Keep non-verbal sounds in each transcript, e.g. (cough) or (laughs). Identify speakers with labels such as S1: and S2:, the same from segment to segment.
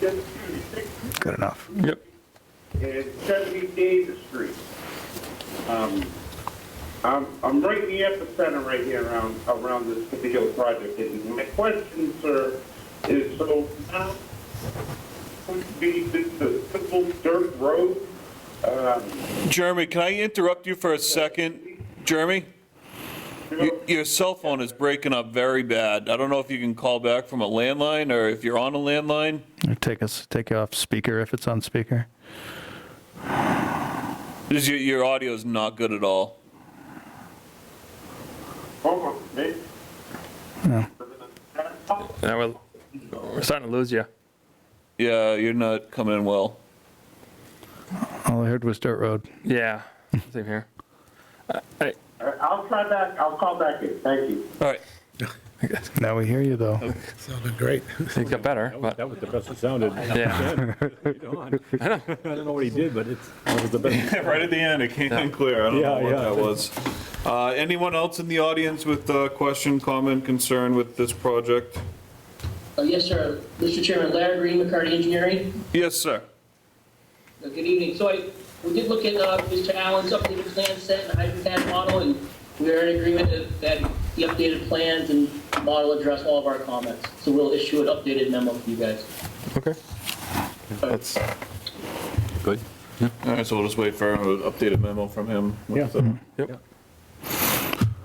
S1: 1976
S2: Good enough.
S3: Yep.
S1: and 70 uh, Davis Street. Um, I'm, I'm right in the epicenter right here around, around this particular project. And my question, sir, is so now, would be this a simple dirt road? Um,
S3: Jeremy, can I interrupt you for a second? Jeremy,
S1: you
S3: y-
S1: know,
S3: your cell phone is breaking up very bad. I don't know if you can call back from a landline or if you're on a landline.
S2: Take us, take you off speaker if it's on speaker.
S3: This- Your, your audio is not good at all.
S1: hold on, maybe-
S2: No.
S4: Now we're, we're starting to lose you.
S3: Yeah, you're not coming in well.
S2: All I heard was dirt road.
S4: Yeah, same here.
S1: All right, I'll try back, I'll call back in, thank you.
S3: All right.
S2: Now we hear you though.
S5: Sounded great.
S4: It got better,
S6: That was,
S4: but
S6: that was the best it sounded.
S4: (laughs) yeah.
S6: Don, (laughs) I don't know what he did, but it's, that was the
S4: (laughs)
S6: best.
S3: Right at the end, it came in clear. I don't know
S6: Yeah,
S3: what
S6: yeah.
S3: that was. Uh, Anyone else in the audience with a question, comment, concern with this project?
S7: Uh, Yes, sir. Mr. Chairman, Larry Green, McCarty Engineering.
S3: Yes, sir.
S7: Uh, Good evening. So I, we did look at uh, Mr. Allen's updated plan set and hydro pad model, and we are in agreement that- that the updated plans and model address all of our comments. So we'll issue an updated memo for you guys.
S4: Okay. That's,
S3: Good. All right, so we'll just wait for an updated memo from him.
S6: Yeah.
S4: yep.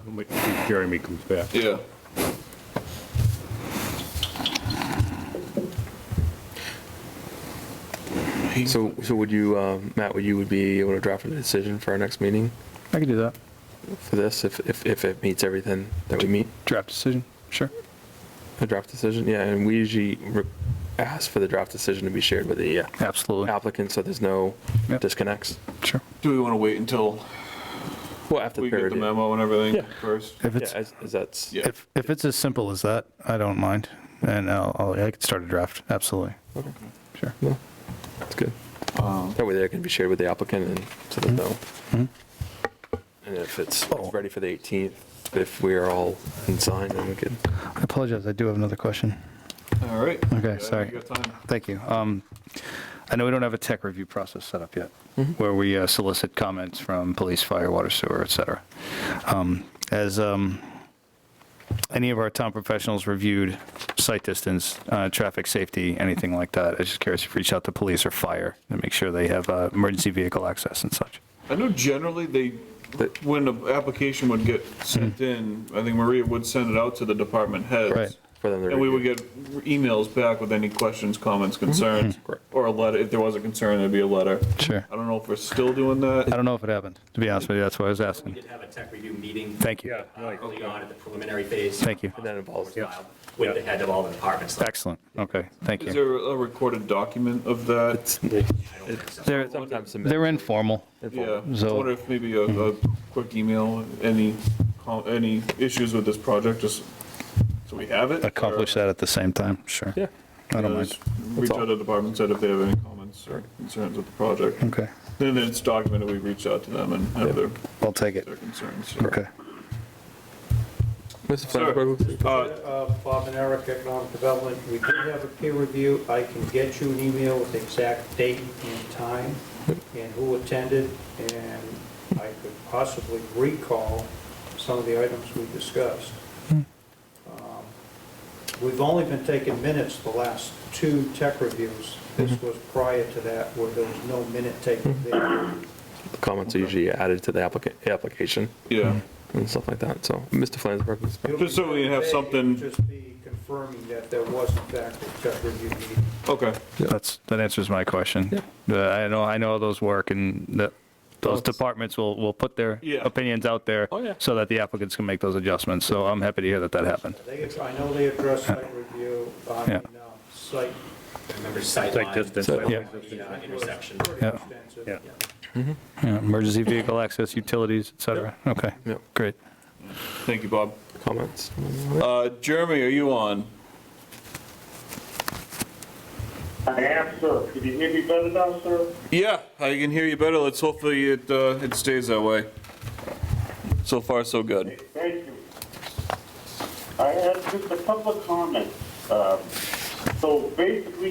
S6: We'll wait to see if Jeremy comes back.
S3: Yeah.
S4: So, so would you, um, Matt, would you would be able to draft a decision for our next meeting
S2: I can do that.
S4: for this if, if, if it meets everything that we meet?
S2: Draft decision, sure.
S4: A draft decision, yeah, and we usually re- ask for the draft decision to be shared with the uh,
S2: Absolutely,
S4: applicant, so there's no
S2: Yep.
S4: disconnects.
S2: sure.
S3: Do we want to wait until
S4: Well, after
S3: we
S4: the
S3: get
S4: period.
S3: the memo and everything
S6: Yeah.
S3: first?
S2: If
S4: Yeah,
S2: it's,
S4: as, as that's,
S3: Yeah.
S2: if, if it's as simple as that, I don't mind. And I'll, I'll- I could start a draft, absolutely. Sure.
S4: that's good. Mm-hmm. That way there can be shared with the applicant and so that they'll. And if it's
S2: Oh.
S4: ready for the 18th, if we are all in sign, then we could.
S2: I apologize, I do have another question.
S3: All right.
S2: Okay,
S3: Yeah,
S2: sorry.
S3: you got time.
S2: Thank you. Um, I know we don't have a tech review process set up yet, where we uh, solicit comments from police, fire, water, sewer, et cetera. Um, As um, any of our town professionals reviewed site distance, uh, traffic safety, anything like that, I was just curious if you reach out to police or fire and make sure they have uh, emergency vehicle access and such.
S3: I know generally they,
S4: But-
S3: when an application would get sent in, I think Maria would send it out to the department heads.
S2: Hmm. Right.
S4: For them to
S3: And we would
S4: review.
S3: get emails back with any questions, comments,
S2: Mm-hmm.
S3: concerns,
S4: Correct.
S3: or a letter, if there was a concern, there'd be a letter.
S2: Sure.
S3: I don't know if we're still doing
S2: I
S3: that.
S2: don't know if it happened, to be honest with you, that's why I was
S8: We
S2: asking.
S8: did have a tech review meeting.
S2: Thank you.
S8: uh, Early on at the preliminary phase.
S2: Thank you.
S4: And that involves-
S8: With the head of all the departments. like,
S2: Excellent, okay, thank you.
S3: Is there a recorded document of that?
S8: I don't think so.
S2: They're,
S4: Sometimes submit-
S2: they're informal,
S3: Yeah, I
S2: So-
S3: wonder if maybe a, a
S2: Mm-hmm.
S3: quick email, any, com- any issues with this project, just so we have it?
S2: accomplish that at the same time, sure.
S4: Yeah.
S2: I don't
S3: Yeah,
S2: mind,
S3: just Reach
S4: all.
S3: out to departments, head if they have any comments or concerns with the project.
S2: okay,
S3: Then it's documented, we reach out to them and have their,
S2: I'll take it,
S3: their concerns. so.
S2: okay.
S4: Mr.
S3: Sir,
S4: Flansburgh?
S3: uh,
S9: Uh, Bob and Eric, Economic Development, we did have a peer review. I can get you an email with the exact date and time and who attended, and I could possibly recall some of the items we discussed.
S3: Hmm.
S9: Um, We've only been taking minutes the last two tech reviews.
S3: Mm-hmm.
S9: This was prior to that where there was no minute taken there.
S3: Mm-hmm.
S4: The Comments are usually added to the applica- application
S3: Yeah,
S4: and stuff like that, so. Mr. Flansburgh? Mr. Flansburgh?
S3: Just so we have
S9: Today,
S3: something-
S9: it'd Just be confirming that there was in fact a tech review meeting.
S3: okay.
S2: That's, that answers my question. Uh, I know, I know how those work and that those departments will, will put their
S3: Yeah.
S2: opinions out there
S4: Oh, yeah.
S2: so that the applicants can make those adjustments. So I'm happy to hear that that happened.
S9: They, I know they address site review, I
S2: Yeah.
S9: mean, uh, site.
S8: I Remember sight
S6: Like
S8: line,
S6: distance.
S4: So-
S2: Yeah.
S8: the, uh, intersection.
S9: Pretty
S2: Yeah.
S9: extensive.
S6: Yeah.
S2: Yeah, Emergency vehicle access, utilities, et cetera. Okay,
S4: Yeah.
S2: great.
S3: Thank you, Bob.
S4: Comments?
S3: Uh, Jeremy, are you on?
S1: I am, sir. Can you hear me better now, sir?
S3: Yeah, I can hear you better. Let's hopefully it, uh, it stays that way. So far, so good.
S1: Thank you. I have just a couple of comments. Um, So basically,